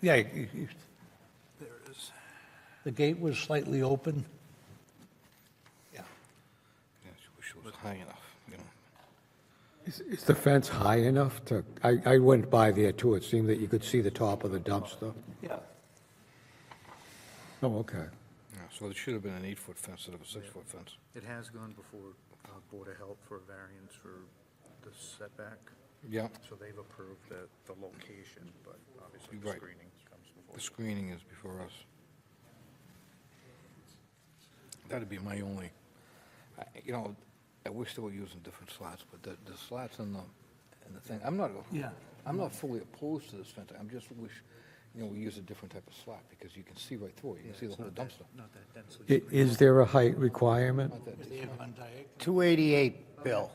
Yeah. There is. The gate was slightly open. Yeah. Yeah, she wish it was high enough, you know. Is is the fence high enough to, I, I went by there too, it seemed that you could see the top of the dumpster. Yeah. Oh, okay. Yeah, So there should have been an eight-foot fence instead of a six-foot fence. It has gone before uh, Board of Health for a variance for the setback, Yeah, so they've approved the, the location, but obviously the Right. screening comes before. the screening is before us. That'd be my only, I- you know, I wish they were using different slots, but the, the slots in the, in the thing, I'm not, Yeah. I'm not fully opposed to this fence. I'm just wish, you know, we use a different type of slot because you can see right through it. You can see the whole dumpster. Not that densely. I- Is there a height requirement? They have on diagonal. 288, Bill.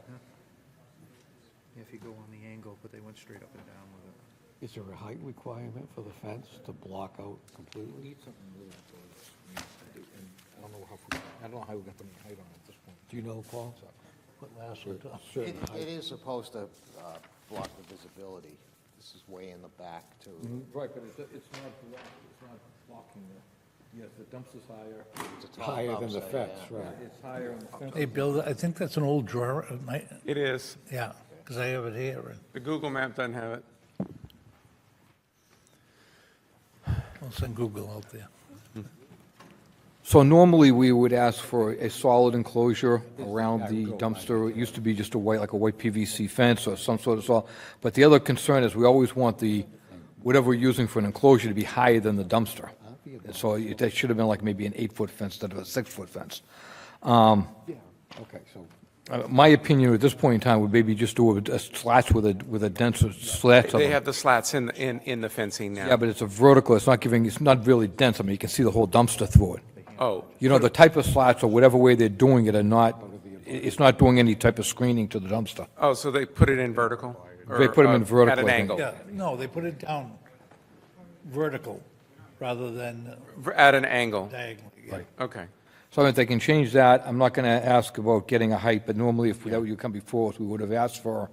If you go on the angle, but they went straight up and down with it. Is there a height requirement for the fence to block out We completely? need something a little bit of this. I mean, I do- and I don't know how, we- I don't know how we got the height on it at this point. Do you know, Paul? What last one? Tom? It it is supposed to uh, block the visibility. This is way in the back, too. Right, but it's, it's not, block- it's not blocking the, yes, the dumpster's higher, It's a tall Higher than the dumpster, fence, yeah. right. it's higher on the fence. Hey, Bill, I think that's an old drawer, of my, It is. yeah, because I have it here. and The Google map doesn't have it. I'll send Google out there. So normally, we would ask for a solid enclosure around the dumpster. It used to be just a white, like a white PVC fence or some sort of saw. But the other concern is, we always want the, whatever we're using for an enclosure to be higher than the dumpster. And So it- that should have been like maybe an eight-foot fence instead of a six-foot fence. Um, Okay, so Uh, My opinion at this point in time would maybe just do a- a slats with a, with a denser slat. of They them. have the slats in, in, in the fencing now. Yeah, but it's a vertical, it's not giving, it's not really dense, I mean, you can see the whole dumpster through it. Oh, You know, the type of slats or whatever way they're doing it are not, i- it's not doing any type of screening to the dumpster. oh, so they put it in vertical? They Or, put 'em in uh, At vertical, an I think. angle? Yeah, no, they put it down vertical rather than V- At an angle? diagonal. Right. Okay. So if they can change that, I'm not gonna ask about getting a height, but normally if that you come before us, we would have asked for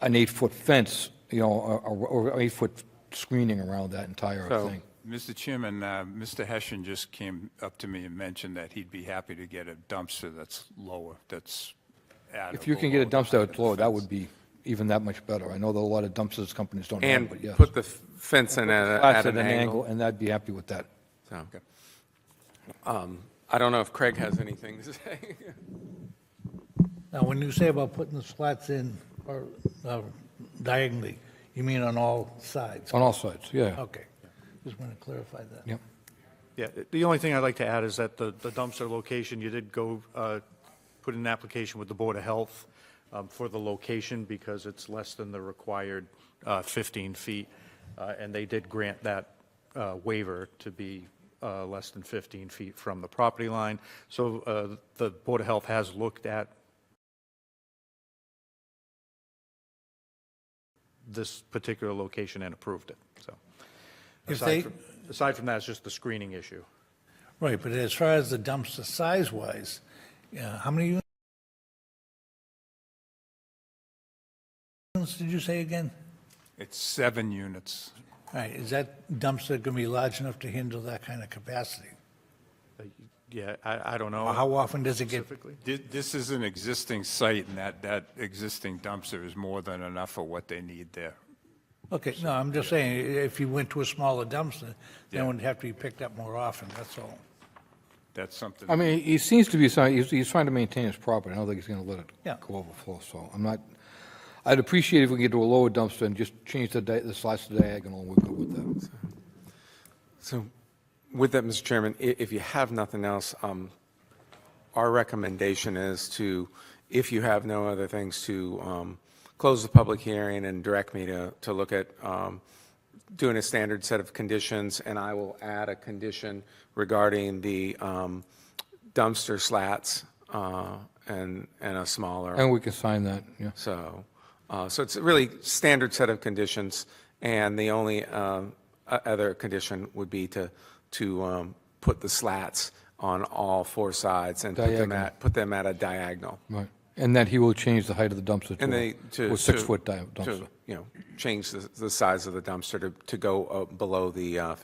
an eight-foot fence, you know, or- or, or eight-foot screening around that entire So- thing. Mr. Chairman, uh, Mr. Hessian just came up to me and mentioned that he'd be happy to get a dumpster that's lower, that's at. If you can get a dumpster that's lower, that would be even that much better. I know that a lot of dumpsters companies don't have, but And yes. put the f- fence in at, a- Slats at an angle? And I'd be happy with that. So, um, I don't know if Craig has anything to say. Now, when you say about putting the slats in or uh, diagonally, you mean on all sides? On all sides, yeah. Okay, just want to clarify that. Yep. Yeah, the only thing I'd like to add is that the the dumpster location, you did go, uh, put in an application with the Board of Health um, for the location because it's less than the required uh, 15 feet, uh, and they did grant that uh, waiver to be uh, less than 15 feet from the property line. So uh, the Board of Health has looked at this particular location and approved it, so. If aside they- from- Aside from that, it's just the screening issue. Right, but as far as the dumpster size-wise, yeah, how many uni- units did you say again? It's seven units. All right, is that dumpster going to be large enough to handle that kind of capacity? Uh, Yeah, I, I don't know. Or how often does it get? specifically. Thi- This is an existing site, and that, that existing dumpster is more than enough for what they need there. Okay, no, I'm just saying, if you went to a smaller dumpster, then it Yeah. would have to be picked up more often, that's all. That's something. I mean, he seems to be, trying- he's, he's trying to maintain his property. I don't think he's gonna let Yeah. it go overflow, so I'm not, I'd appreciate if we could get to a lower dumpster and just change the, di- the slice to diagonal, and we're good with that. So with that, Mr. Chairman, i- if you have nothing else, um, our recommendation is to, if you have no other things, to um, close the public hearing and direct me to, to look at um, doing a standard set of conditions, and I will add a condition regarding the um, dumpster slats uh, and, and a smaller. And we can sign that, yeah. So, uh, so it's a really standard set of conditions, and the only um, o- other condition would be to, to um, put the slats on all four sides and put them Diagonal. at, put them at a diagonal. Right. And that he will change the height of the dumpster And they, to a- to. a to- six-foot di- to, dumpster. You know, change the, the size of the dumpster to, to go uh, below the uh,